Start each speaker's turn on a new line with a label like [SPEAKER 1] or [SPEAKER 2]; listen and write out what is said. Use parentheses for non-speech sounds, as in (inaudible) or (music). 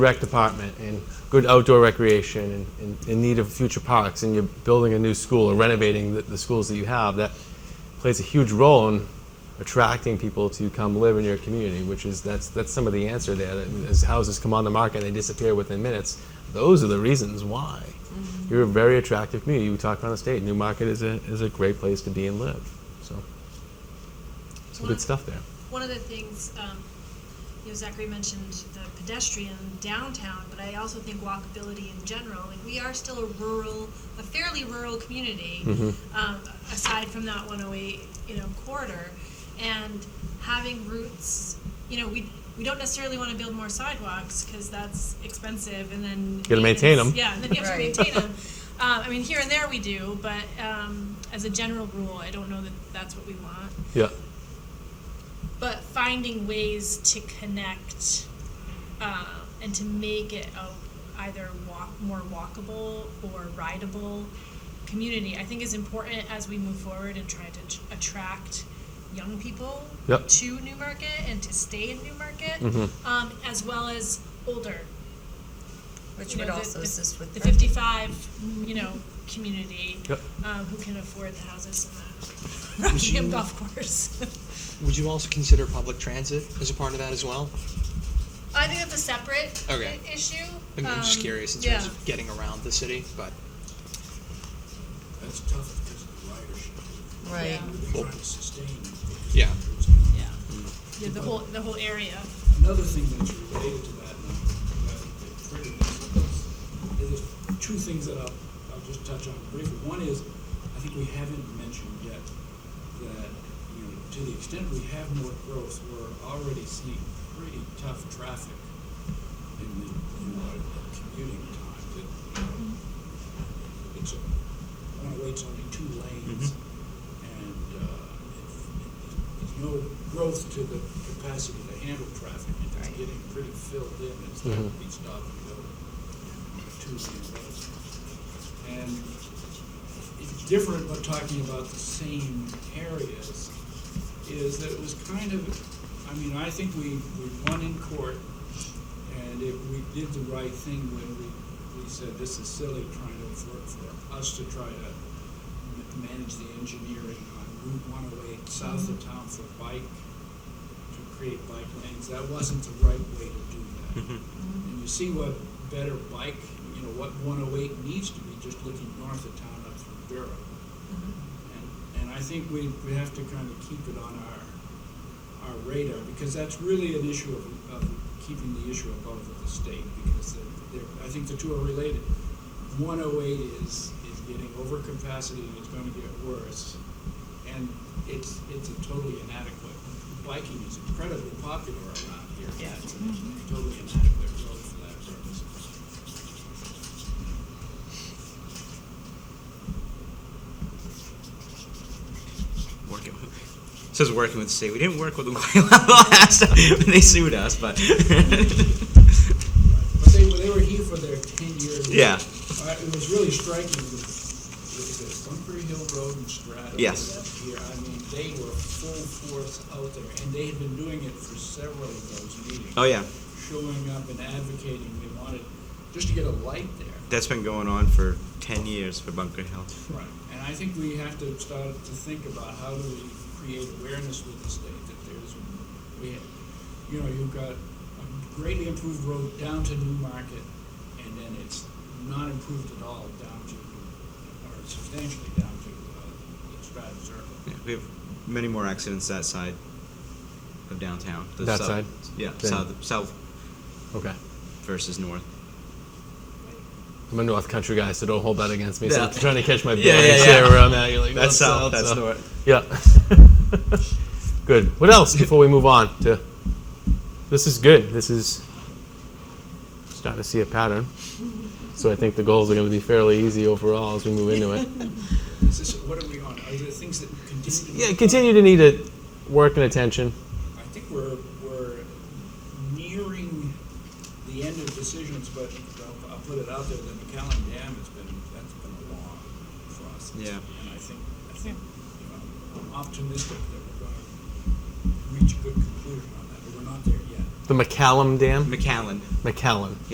[SPEAKER 1] rec department and good outdoor recreation and, and in need of future parks and you're building a new school or renovating the, the schools that you have, that plays a huge role in attracting people to come live in your community, which is that's that's some of the answer there. That as houses come on the market and they disappear within minutes, those are the reasons why. You're a very attractive community. You talked on the state. New Market is a is a great place to be and live. So some
[SPEAKER 2] Well,
[SPEAKER 1] good stuff there.
[SPEAKER 2] One of the things, um, you know, Zachary mentioned the pedestrian downtown, but I also think walkability in general. Like we are still a rural, a fairly rural community,
[SPEAKER 1] Mm-hmm.
[SPEAKER 2] um, aside from that 108, you know, corridor, and having routes. You know, we we don't necessarily want to build more sidewalks because that's expensive, and then
[SPEAKER 1] gotta maintain
[SPEAKER 2] maintenance-
[SPEAKER 1] 'em.
[SPEAKER 2] Yeah, and then you have to
[SPEAKER 3] Right.
[SPEAKER 2] maintain them. Uh, I mean, here and there we do, but um, as a general rule, I don't know that that's what we want
[SPEAKER 1] Yeah.
[SPEAKER 2] but finding ways to connect um, and to make it a either walk more walkable or rideable community i think is important as we move forward and try to t- attract young people
[SPEAKER 1] Yep.
[SPEAKER 2] to new market and to stay in new market
[SPEAKER 1] Mhm.
[SPEAKER 2] um, as well as older
[SPEAKER 3] Which
[SPEAKER 2] you know,
[SPEAKER 3] would
[SPEAKER 2] the-
[SPEAKER 3] also
[SPEAKER 2] the-
[SPEAKER 3] assist with
[SPEAKER 2] the
[SPEAKER 3] parking.
[SPEAKER 2] 55 you know community
[SPEAKER 1] Yep.
[SPEAKER 2] um, who can afford the houses in the (laughs) Rockingham golf course (laughs)
[SPEAKER 4] Would you also consider public transit as a part of that as well?
[SPEAKER 2] I think that's a separate
[SPEAKER 4] Okay.
[SPEAKER 2] i- issue.
[SPEAKER 4] I'm, I'm just
[SPEAKER 2] Um,
[SPEAKER 4] curious in
[SPEAKER 2] yeah.
[SPEAKER 4] terms of getting around the city, but
[SPEAKER 5] That's tough because of the ridership.
[SPEAKER 3] Right.
[SPEAKER 5] They're trying to sustain it.
[SPEAKER 4] Yeah.
[SPEAKER 2] Yeah.
[SPEAKER 4] Mm.
[SPEAKER 2] yeah, the whole the whole area.
[SPEAKER 5] Another thing that's related to that, and I think they printed this, is there's two things that I'll, I'll just touch on briefly. One is, I think we haven't mentioned yet that, you know, to the extent we have more growth, we're already seeing pretty tough traffic in the, in the commuting time. That, you know, it's, a- one way it's only two lanes, and uh, if- there's no growth to the capacity to handle traffic, and it's
[SPEAKER 3] Right.
[SPEAKER 5] getting pretty filled in, it's not gonna be stop and go, two lanes. And it's different, but talking about the same areas, is that it was kind of, I mean, I think we, we won in court, and if we did the right thing when we, we said, this is silly trying to, for, for us to try to ma- manage the engineering on Route one oh eight south of town for bike, to create bike lanes, that wasn't the right way to do that. And you see what better bike, you know, what one oh eight needs to be, just looking north of town up through Barrow. And, and I think we, we have to kind of keep it on our, our radar, because that's really an issue of, of keeping the issue above with the state, because they're, they're- I think the two are related. One oh eight is, is getting over capacity and it's gonna get worse, and it's, it's a totally inadequate. Biking is incredibly popular around here,
[SPEAKER 3] Yeah.
[SPEAKER 5] it's a totally inadequate road for that purpose.
[SPEAKER 6] working with, it says working with the state. We didn't work with (laughs) them quite last time when they sued us, but (laughs)
[SPEAKER 5] But they, were- they were here for their ten-year.
[SPEAKER 6] Yeah.
[SPEAKER 5] Uh, it was really striking with, with the Bunker Hill Road and Strata.
[SPEAKER 6] Yes.
[SPEAKER 5] Here, I mean, they were full force out there, and they had been doing it for several of those meetings.
[SPEAKER 6] oh yeah,
[SPEAKER 5] Showing up and advocating, they wanted, just to get a light there.
[SPEAKER 6] that's been going on for ten years for Bunker Hill.
[SPEAKER 5] Right. And I think we have to start to think about how do we create awareness with the state that there's, we, have- you know, you've got a greatly improved road down to New Market, and then it's not improved at all down to, or substantially down to, uh, the Stratton
[SPEAKER 6] Yeah,
[SPEAKER 5] Circle.
[SPEAKER 6] we have many more accidents that side of downtown.
[SPEAKER 1] That
[SPEAKER 6] south,
[SPEAKER 1] side?
[SPEAKER 6] Yeah,
[SPEAKER 1] Than-
[SPEAKER 6] south, south
[SPEAKER 1] Okay.
[SPEAKER 6] versus north.
[SPEAKER 1] I'm a North Country guy, so don't hold that against me. So
[SPEAKER 6] Yeah.
[SPEAKER 1] I'm trying to catch my
[SPEAKER 6] Yeah,
[SPEAKER 1] bearings
[SPEAKER 6] yeah, yeah.
[SPEAKER 1] here where I'm at. You're like,
[SPEAKER 6] That's
[SPEAKER 1] "Well,
[SPEAKER 6] south, that's
[SPEAKER 1] so-"
[SPEAKER 6] north.
[SPEAKER 1] Yeah. (laughs) good. What else before we move on to? This is good. This is starting to see a pattern. So I think the goals are going to be fairly easy overall as we move into it.
[SPEAKER 5] Is this, what are we on? Are there things that continue
[SPEAKER 1] (laughs)
[SPEAKER 5] to?
[SPEAKER 1] Yeah, continue to need it, work and attention.
[SPEAKER 5] I think we're, we're nearing the end of decisions, but I'll, I'll put it out there that McAllen Dam has been, that's been a long process.
[SPEAKER 6] Yeah.
[SPEAKER 5] And I think, I think, you know, I'm optimistic that we're gonna reach a good conclusion on that, but we're not there yet.
[SPEAKER 1] The McCallum Dam.
[SPEAKER 6] McAllen.
[SPEAKER 1] McCallum.